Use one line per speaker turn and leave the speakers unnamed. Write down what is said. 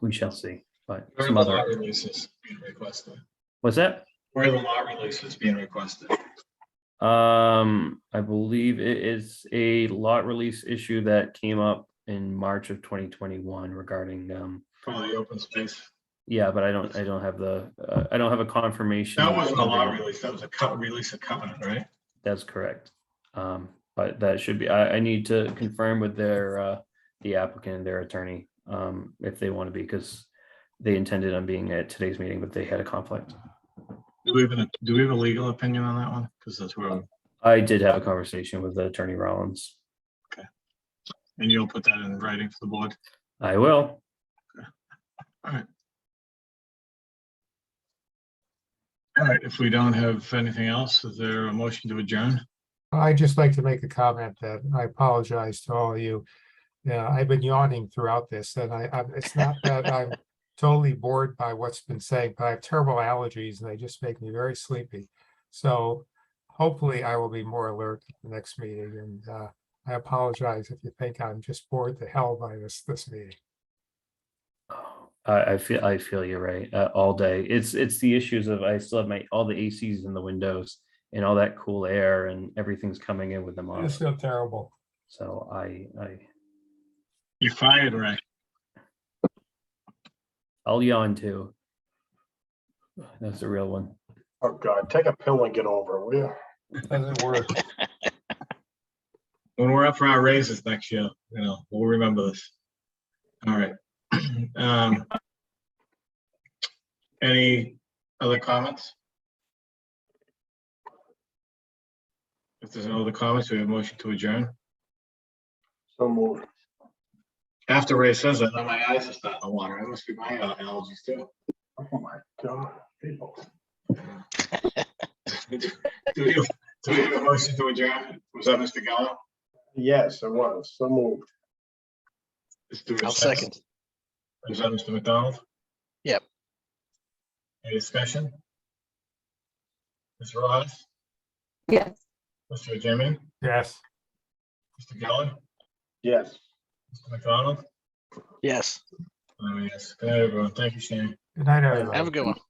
we shall see, but
Where are
some
the
other,
lot releases being requested?
was that?
Where are the lot releases being requested?
Um, I believe it is a lot release issue that came up in March of twenty twenty-one regarding, um,
From the open space?
yeah, but I don't, I don't have the, uh, I don't have a confirmation.
That wasn't a lot
of-
release, that was a co- release of covenant, right?
That's correct. Um, but that should be, I, I need to confirm with their, uh, the applicant and their attorney, um, if they want to be, because they intended on being at today's meeting, but they had a conflict.
Do we have an, do we have a legal opinion on that one? Because that's where,
I did have a conversation with Attorney Rollins.
and you'll put that in writing for the board.
I will.
All right, if we don't have anything else, is there a motion to adjourn?
I'd just like to make a comment that I apologize to all of you. Yeah, I've been yawning throughout this and I, I'm- it's not that I'm totally bored by what's been said, but I have terrible allergies and they just make me very sleepy. So hopefully I will be more alert at the next meeting and, uh, I apologize if you think I'm just bored to hell by this, this meeting.
I, I feel, I feel you're right, uh, all day. It's, it's the issues of, I still have my, all the ACs in the windows and all that cool air and everything's coming in with them
I
on.
just feel terrible.
So I, I,
You're fired, Ray.
I'll yawn too. That's a real one.
Oh, God, take a pill and get over it, will you?
Doesn't work.
When we're up for our raises next year, you know, we'll remember this. All right. Um, Any other comments? If there's no other comments, we have a motion to adjourn.
So moved.
After Ray says that, now my eyes are starting to water. It must be my uh, allergies too.
Oh, my God, people.
Do we have do we have a motion to adjourn? Was that Mr. Gallo?
Yes, it was. So moved.
I'll second.
Is that Mr. McDonald?
Yep.
Any discussion? Ms. Ross,
Yes.
Mr. Jimmy,
Yes.
Mr. Gallo,
Yes.
Mr. McDonald?
Yes.
Oh, yes. Good, night, everyone. Thank you, Shane.
Good night, everybody.
Have a good one.